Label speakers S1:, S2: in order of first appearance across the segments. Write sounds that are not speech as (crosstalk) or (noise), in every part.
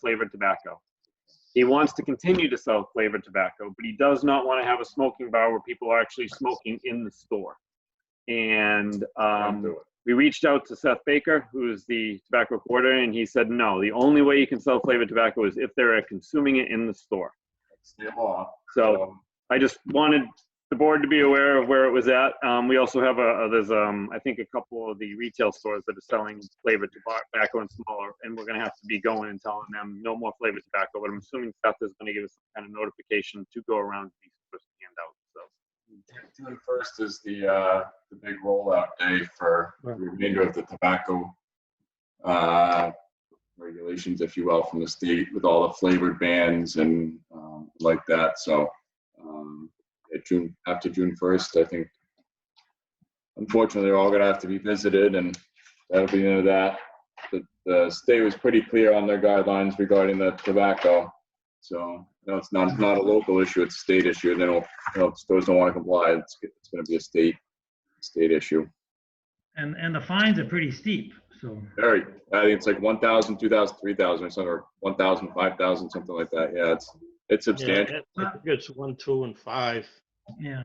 S1: flavored tobacco. He wants to continue to sell flavored tobacco, but he does not want to have a smoking bar where people are actually smoking in the store. And
S2: Can't
S1: um,
S2: do it.
S1: we reached out to Seth Baker, who's the tobacco coordinator, and he said, no, the only way you can sell flavored tobacco is if they're consuming it in the store.
S2: It's the law. um,
S1: So I just wanted the board to be aware of where it was at. Um, we also have a, a- there's, um, I think a couple of the retail stores that are selling flavored toba- tobacco and smaller, and we're gonna have to be going and telling them no more flavored tobacco, but I'm assuming Seth is gonna give us some kind of notification to go around these stores and hand out, so.
S2: June first is the, uh, the big rollout day for the remainder of the tobacco, uh, regulations, if you will, from the state with all the flavored bans and, um, like that, so, um, at June, after June first, I think, unfortunately, they're all gonna have to be visited and that'll be the end of that. The, the state was pretty clear on their guidelines regarding the tobacco, so, no, it's not, not a local issue, it's a state issue, they don't you know, if stores don't want to comply, it's, it's gonna be a state, state issue.
S3: And, and the fines are pretty steep, so.
S2: Very, I think it's like one thousand, two thousand, three thousand or something, or one thousand, five thousand, something like that. Yeah, it's, it's substantial.
S4: Yeah, I think it's one, two, and five.
S3: Yeah.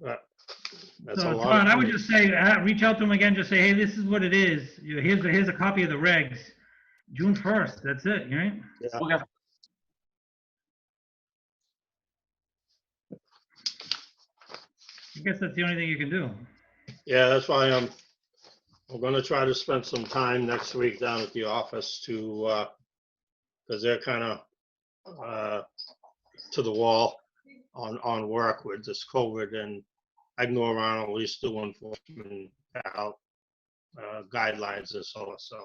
S4: That's a
S3: So
S4: lot.
S3: Todd,
S4: of
S3: Oh, I would
S4: food.
S3: just say, uh, reach out to them again, just say, hey, this is what it is. You- Here's, here's a copy of the regs. June 1st, that's it, right?
S4: Yeah.
S3: I guess that's the only thing you can do.
S4: Yeah, that's why I'm, I'm gonna try to spend some time next week down at the office to, uh, because they're kind of, uh, to the wall on, on work with this COVID and I can go around at least do enforcement out, uh, guidelines and so on, so,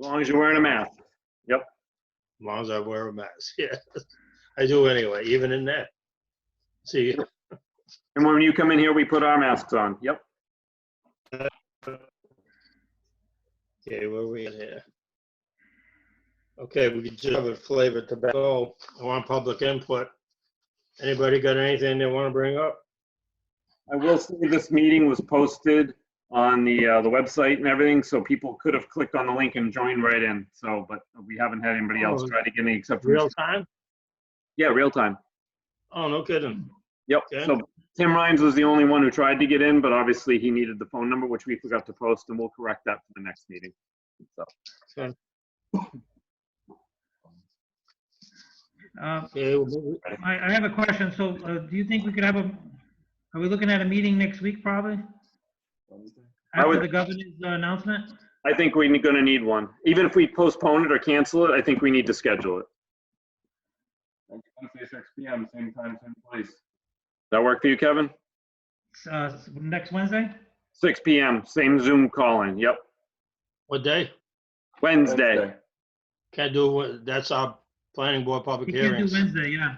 S1: As long as you're wearing a mask.
S4: long as I wear a mask, (laughs) yeah. I do anyway, even in that. See,
S1: And when you come in here, we put our masks on. Yep.
S4: Okay, where we at here? Okay, we could just have a flavored tobacco. I want public input. Anybody got anything they want to bring up?
S1: I will say this meeting was posted on the, uh, the website and everything, so people could have clicked on the link and joined right in. So, but we haven't had anybody else try to get any except for,
S4: Real time?
S1: yeah, real time.
S4: Oh, no kidding.
S1: Yep.
S4: Okay.
S1: So Tim Rhines was the only one who tried to get in, but obviously he needed the phone number, which we forgot to post, and we'll correct that for the next meeting.
S3: Uh,
S4: Okay, we'll move it.
S3: I, I have a question. So uh, do you think we could have a, are we looking at a meeting next week probably?
S1: I
S3: After
S1: would-
S3: the governor's uh, announcement?
S1: I think we're gonna need one. Even if we postpone it or cancel it, I think we need to schedule it.
S2: Wednesday, six P M, same time, same place.
S1: That work for you, Kevin?
S3: Uh, Next Wednesday?
S1: Six PM, same Zoom call-in. Yep.
S4: what day?
S1: Wednesday.
S4: Can't do, what- that's our planning board public
S3: We can't
S4: hearings.
S3: do Wednesday, yeah.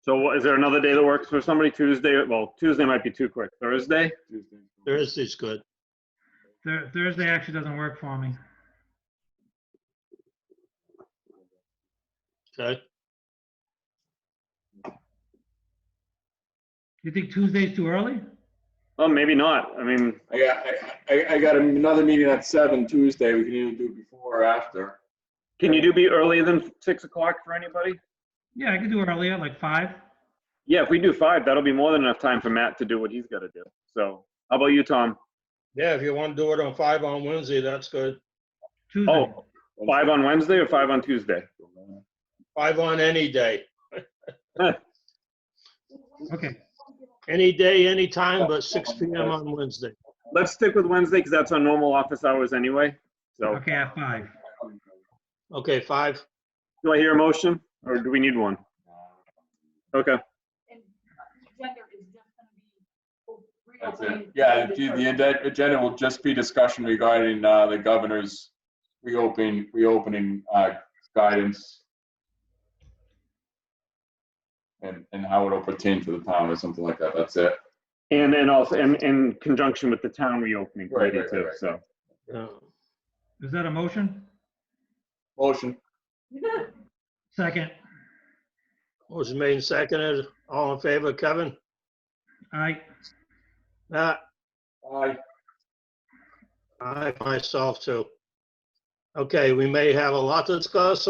S1: So what- is there another day that works for somebody? Tuesday, well, Tuesday might be too quick. Thursday?
S2: Tuesday.
S4: Thursday's good.
S3: Thur- Thursday actually doesn't work for me.
S4: Okay,
S3: You think Tuesday's too early?
S1: Oh, maybe not. I mean,
S2: I got, I, I, I got another meeting at seven Tuesday. We can either do it before or after.
S1: can you do be earlier than six o'clock for anybody?
S3: Yeah, I could do earlier, like five.
S1: Yeah, if we do five, that'll be more than enough time for Matt to do what he's gotta do. So how about you, Tom?
S4: yeah, if you want to do it on five on Wednesday, that's good.
S3: Tuesday.
S1: Oh, five on Wednesday or five on Tuesday?
S4: Five on any day.
S3: Okay.
S4: Any day, any time, but six P M on Wednesday.
S1: Let's stick with Wednesday because that's our normal office hours anyway. So
S3: Okay, at five.
S4: Okay, five.
S1: do I hear a motion or do we need one? Okay,
S5: and uh, gender is just gonna be.
S2: That's it.
S5: reopening
S2: Yeah, the,
S5: the
S2: the
S5: first.
S2: agenda- agenda will just be discussion regarding, uh, the governor's reopening, reopening, uh, guidance. And, and how it'll pertain to the town or something like that. That's it.
S1: and then also in, in conjunction with the town reopening
S2: Right,
S1: committee
S2: right, right,
S1: too,
S2: right.
S1: so.
S4: Yeah.
S3: Is that a motion?
S2: Motion.
S3: Second.
S4: Motion made and seconded. All in favor, Kevin?
S3: I,
S4: Matt?
S2: Aye.
S4: I myself too. Okay, we may have a lot to discuss,